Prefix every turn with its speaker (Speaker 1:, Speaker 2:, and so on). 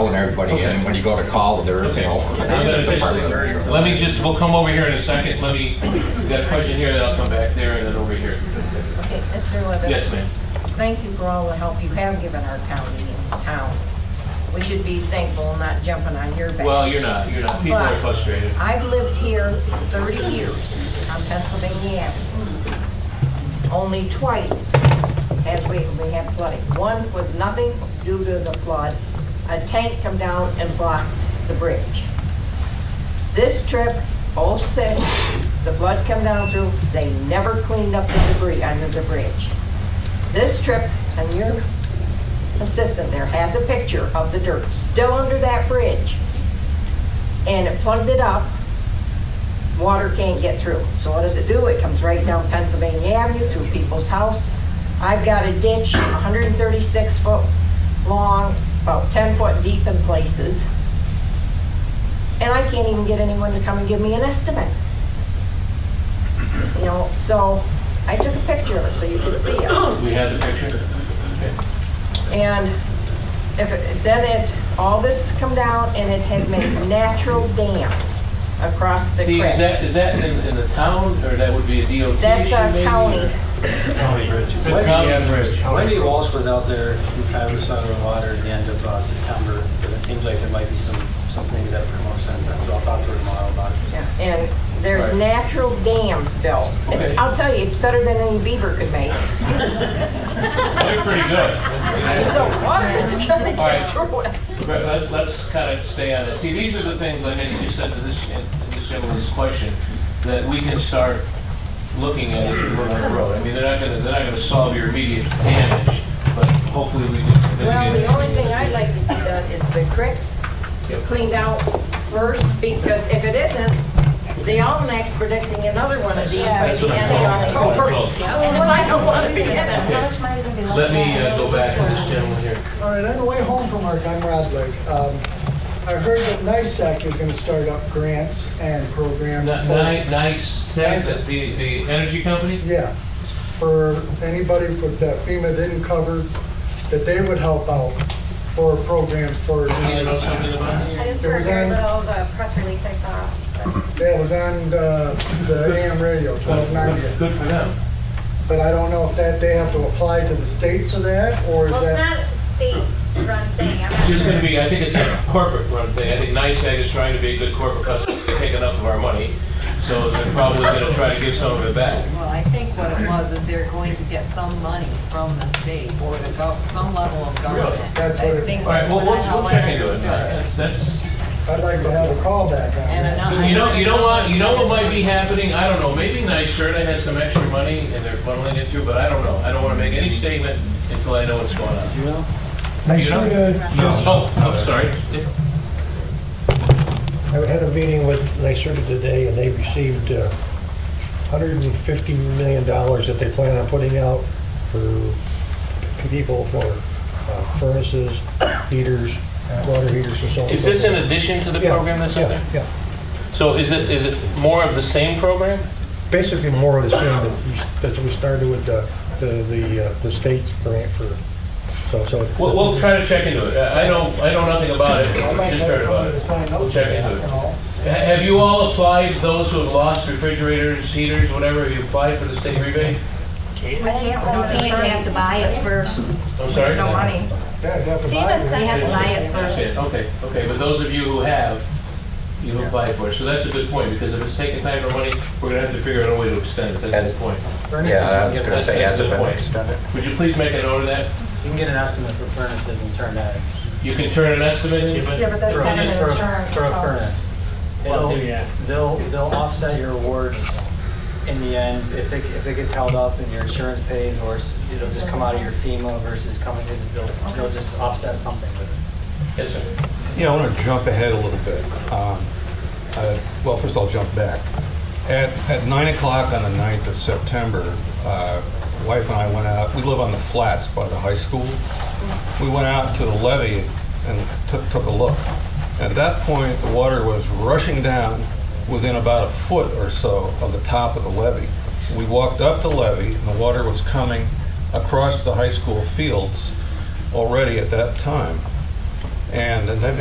Speaker 1: calling everybody in, and when you go to call, there is
Speaker 2: Okay.
Speaker 1: no.
Speaker 2: I'm gonna just- Let me just, we'll come over here in a second. Let me, we got a question here, then I'll come back there and then over here.
Speaker 3: Okay, Mr. Levis.
Speaker 2: Yes, ma'am.
Speaker 3: Thank you for all the help you have given our county and town. We should be thankful, not jumping on your back.
Speaker 2: Well, you're not, you're not. People are frustrated.
Speaker 3: I've lived here 30 years on Pennsylvania Avenue. Only twice has we, we had flooding. One was nothing due to the flood. A tank come down and blocked the bridge. This trip, '06, the flood come down through, they never cleaned up the debris under the bridge. This trip, and your assistant there has a picture of the dirt still under that bridge and it plugged it up, water can't get through. So what does it do? It comes right down Pennsylvania Avenue through people's house. I've got a ditch 136 foot long, about 10 foot deep in places. And I can't even get anyone to come and give me an estimate. You know, so I took a picture of it so you could see it.
Speaker 2: We have the picture? Okay.
Speaker 3: And if, it- then it, all this come down and it has made natural dams across the
Speaker 2: Steve, is
Speaker 3: creek.
Speaker 2: that, is that in, in the town or that would be a DOT
Speaker 3: That's
Speaker 2: issue
Speaker 3: our
Speaker 2: maybe, or-
Speaker 3: county.
Speaker 4: County Bridge.
Speaker 2: It's county bridge.
Speaker 4: Wendy Walsh was out there in Traverse on the water at the end of uh, September, but it seems like there might be some, some things that have come up since then, so I'll talk to her tomorrow about it.
Speaker 3: Yeah, And there's natural dams built. And
Speaker 4: Okay.
Speaker 3: I'll tell you, it's better than any beaver could make.
Speaker 2: They're pretty good.
Speaker 3: So water isn't gonna
Speaker 2: All right.
Speaker 3: get through it.
Speaker 2: But let's, let's kind of stay on it. See, these are the things, like I just said to this, to this gentleman's question, that we can start looking at as we go down the road. I mean, they're not gonna, they're not gonna solve your immediate damage, but hopefully we can.
Speaker 3: Well, the only thing I'd like to see done is the cricks cleaned out first, because if it isn't, the almanac's predicting another one of these by
Speaker 2: That's
Speaker 3: the
Speaker 2: what
Speaker 3: end of
Speaker 2: I'm calling-
Speaker 3: October.
Speaker 2: calling.
Speaker 3: I don't want to be in it.
Speaker 2: Okay. Let me uh, go back to this gentleman here.
Speaker 5: All right, on the way home from work, I'm Rob Blake. Um, I heard that NICEAC is going to start up grants and programs.
Speaker 2: Ni-
Speaker 5: for-
Speaker 2: ni- Nice, that's it, the, the energy company?
Speaker 5: Yeah, for anybody for- that FEMA didn't cover, that they would help out for programs
Speaker 2: You
Speaker 5: for.
Speaker 2: need to know something about this?
Speaker 6: I just
Speaker 5: It
Speaker 6: heard
Speaker 5: was
Speaker 6: very
Speaker 5: on-
Speaker 6: little of the press release I saw.
Speaker 5: That was on uh, the AM radio, twelve ninety.
Speaker 2: Good good for them.
Speaker 5: But I don't know if that, they have to apply to the state for that, or is
Speaker 6: Well, it's
Speaker 5: that?
Speaker 6: not a state-run thing. I'm not
Speaker 2: It's
Speaker 6: sure.
Speaker 2: gonna be, I think it's a corporate run thing. I think NICEAG is trying to be a good corporate customer, they take enough of our money, so they're probably gonna try to give some of it back.
Speaker 7: Well, I think what it was is they're going to get some money from the state or the gov, some level of government.
Speaker 5: That's what it-
Speaker 7: I think
Speaker 2: All right,
Speaker 7: that's
Speaker 2: well,
Speaker 7: what
Speaker 2: we'll,
Speaker 7: I- how
Speaker 2: we'll
Speaker 7: I
Speaker 2: check into it.
Speaker 7: understood
Speaker 2: That's, that's,
Speaker 5: I'd like to have a callback on
Speaker 7: And uh,
Speaker 5: that.
Speaker 7: another.
Speaker 2: you know, you know what, you know what might be happening? I don't know, maybe NYSERDA has some extra money and they're funneling it through, but I don't know. I don't wanna make any statement until I know what's going on.
Speaker 4: Do you know?
Speaker 8: Nice
Speaker 2: You know?
Speaker 8: Serta
Speaker 2: Oh, I'm sorry.
Speaker 8: I had a meeting with NYSERDA today, and they received uh, $150 million that they plan on putting out for people for uh, furnaces, heaters, water heaters and so on. and
Speaker 2: Is
Speaker 8: so
Speaker 2: this in
Speaker 8: forth.
Speaker 2: addition to the
Speaker 8: Yeah,
Speaker 2: program that's out there?
Speaker 8: Yeah, yeah.
Speaker 2: So is it, is it more of the same program?
Speaker 8: Basically, more of the same that we- that we started with the, the- the uh, the state grant for, so, so.
Speaker 2: We'll, we'll try to check into it. I I don't, I know nothing about it,
Speaker 5: I might
Speaker 2: just
Speaker 5: have
Speaker 2: heard about
Speaker 5: somebody to
Speaker 2: it.
Speaker 5: sign up
Speaker 2: We'll check
Speaker 5: for that,
Speaker 2: into it.
Speaker 5: you know.
Speaker 2: Ha- Have you all applied, those who have lost refrigerators, heaters, whatever, have you applied for the state rebate?
Speaker 3: No,
Speaker 9: They have to buy it first,
Speaker 2: I'm sorry?
Speaker 3: No money.
Speaker 5: Yeah, I'd have to buy
Speaker 9: FEMA
Speaker 5: it.
Speaker 9: said they have to buy it
Speaker 2: That's
Speaker 9: first.
Speaker 2: it, Okay, okay, but those of you who have, you've applied for it, so that's a good point, because if it's taking time or money, we're gonna have to figure out a way to extend it, that's the point.
Speaker 1: Yeah,
Speaker 2: uh,
Speaker 1: I was gonna say,
Speaker 2: That's
Speaker 1: has
Speaker 2: a
Speaker 1: it
Speaker 2: good
Speaker 1: been
Speaker 2: point.
Speaker 1: extended?
Speaker 2: Would you please make a note of that?
Speaker 4: You can get an estimate for furnaces and turn that.
Speaker 2: You can turn an estimate in, but
Speaker 3: Yeah, but that's
Speaker 4: For a-
Speaker 3: not an
Speaker 4: for a-
Speaker 3: insurance.
Speaker 4: For a
Speaker 3: so-
Speaker 4: furnace. It'll, they'll, they'll offset your awards in the end, if it, if it gets held up and your insurance pays, or it's- it'll just come out of your FEMA versus coming in, they'll, they'll just offset something with it.
Speaker 2: yes, sir.
Speaker 10: Yeah, I want to jump ahead a little bit. Um, uh, Well, first I'll jump back. At at 9 o'clock on the 9th of September, uh, wife and I went out, we live on the flats by the high school. We went out to the levee and took took a look. At that point, the water was rushing down within about a foot or so of the top of the levee. We walked up the levee, and the water was coming across the high school fields already at that time. And, and then-